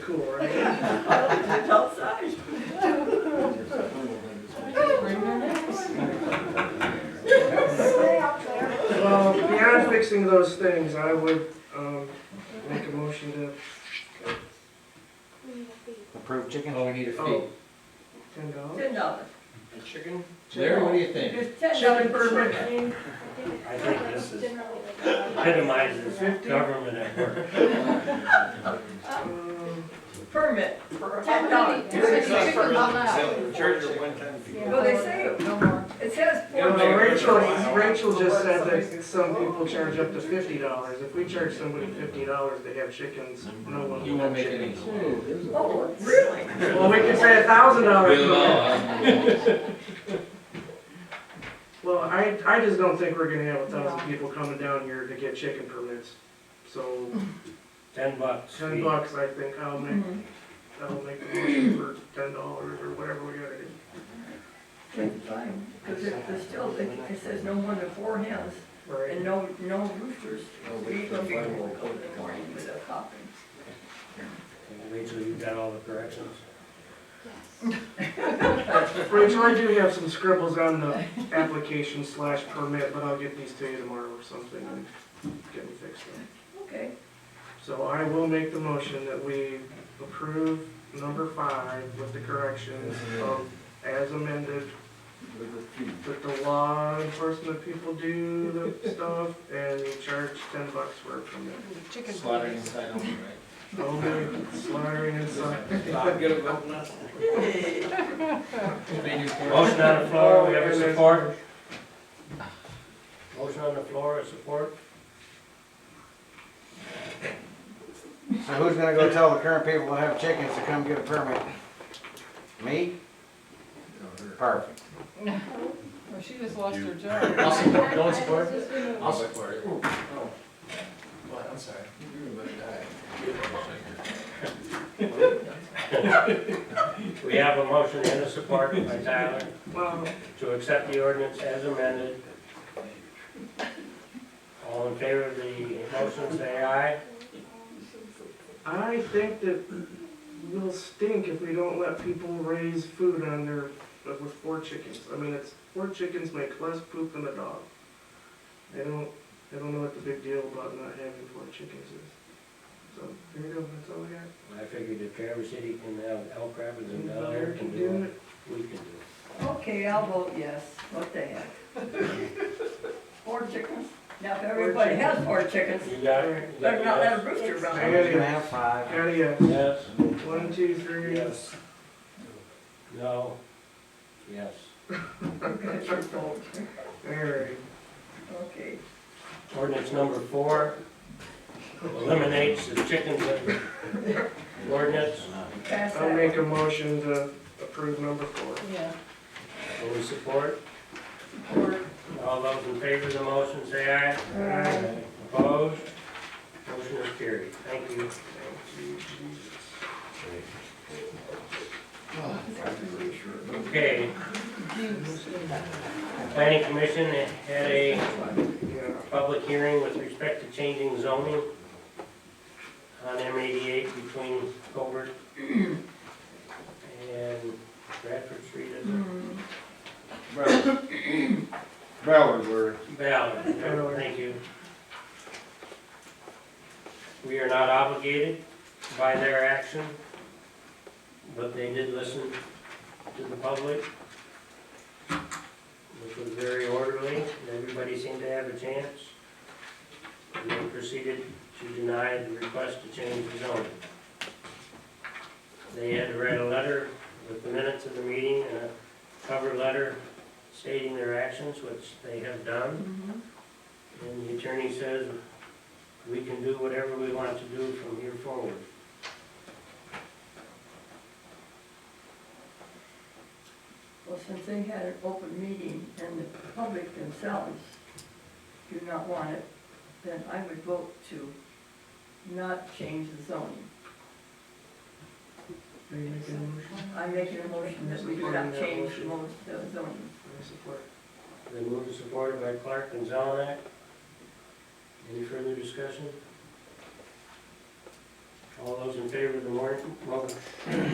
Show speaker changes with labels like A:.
A: Cool, right?
B: It's outside.
A: Well, beyond fixing those things, I would, um, make a motion to,
C: Approved chicken?
D: Oh, we need a fee.
A: oh, ten dollars?
B: Ten dollars.
A: Chicken?
D: Larry, what do you think?
B: There's ten dollars per person.
E: I think this is epitomizes government at work.
A: Um,
B: Permit, ten dollars. Well, they say it no more. It says
A: you know,
B: four.
A: Rachel, Rachel just said that some people charge up to fifty dollars. If we charge somebody fifty dollars to have chickens, no one
D: You
A: will
D: won't
A: have
D: make
A: chickens.
D: any.
B: Oh, really?
A: Well, we could say a thousand dollars. Well, I, I just don't think we're gonna have a thousand people coming down here to get chicken permits. So
E: Ten bucks.
A: ten bucks, I think, I'll make,
B: Mhm.
A: I'll make the motion for ten dollars or whatever we gotta do.
B: Okay, fine. Because it, it's still, it it says no more than four hens and
A: Right,
B: no, no roosters.
D: No
B: We
D: roosters,
B: don't be
D: why
B: able
D: won't
B: to go in the morning with a coffin.
E: Rachel, you got all the corrections?
A: Rachel, I do have some scribbles on the application slash permit, but I'll get these to you tomorrow or something and get them fixed up.
B: Okay.
A: So I will make the motion that we approve number five with the corrections of as amended,
D: um,
A: that the law enforcement people do the stuff and we charge ten bucks for a permit.
D: Slaughtering inside only, right?
A: Only slaughtering inside.
D: They do for us.
E: Motion on the floor, we have a support. Motion on the floor, a support.
C: So who's gonna go tell the current people that have chickens to come get a permit? Me? Perfect.
F: Well, she just lost her job.
D: I'll support, don't support?
G: I'll support
D: Oh,
G: it.
D: What, I'm sorry.
E: We have a motion and a support by Tyler
A: Well,
E: to accept the ordinance as amended. All in favor of the motion, say aye.
A: I think that we'll stink if we don't let people raise food on their, with four chickens. I mean, it's, four chickens make less poop than a dog. I don't, I don't know what the big deal about not having four chickens is. So, there you go, that's all I got.
E: I figured if Traverse City can have elk rapids and down there can
A: Do
E: do
A: it.
E: it, we can do it.
B: Okay, I'll vote yes. What the heck? Four chickens? Now, if everybody has four chickens,
E: You got it? You got
B: better
E: it?
B: not let a rooster run.
C: I'm just gonna have five.
A: Patty, uh,
E: Yes,
A: one, two, three.
E: yes. No, yes.
B: Okay, your vote.
A: All right.
B: Okay.
E: Ordinance number four eliminates the chickens ordinance.
B: Pass
A: I'll
B: that.
A: make a motion to approve number four.
F: Yeah.
E: Will we support? All those in favor of the motion, say aye.
B: uh,
A: Aye.
E: Opposed? Motion is carried. Thank you. Okay. Planning Commission had a
A: Yeah.
E: public hearing with respect to changing zoning on M eighty-eight between Colbert and Bradford Street, is it?
D: Broward, we're.
E: Ballard, thank you. We are not obligated by their action, but they did listen to the public, which was very orderly, and everybody seemed to have a chance. And then proceeded to deny the request to change the zoning. They had to write a letter with the minutes of the meeting and a cover letter stating their actions, which they have done.
B: Mhm.
E: And the attorney says, we can do whatever we want to do from here forward.
B: Well, since they had an open meeting and the public themselves do not want it, then I would vote to not change the zoning.
A: Are you making a motion?
B: I'm making a motion that we do not change the mo- the zoning.
A: I support.
E: Then moved and supported by Clark and Zelenak. Any further discussion? All those in favor of the warrant, mo-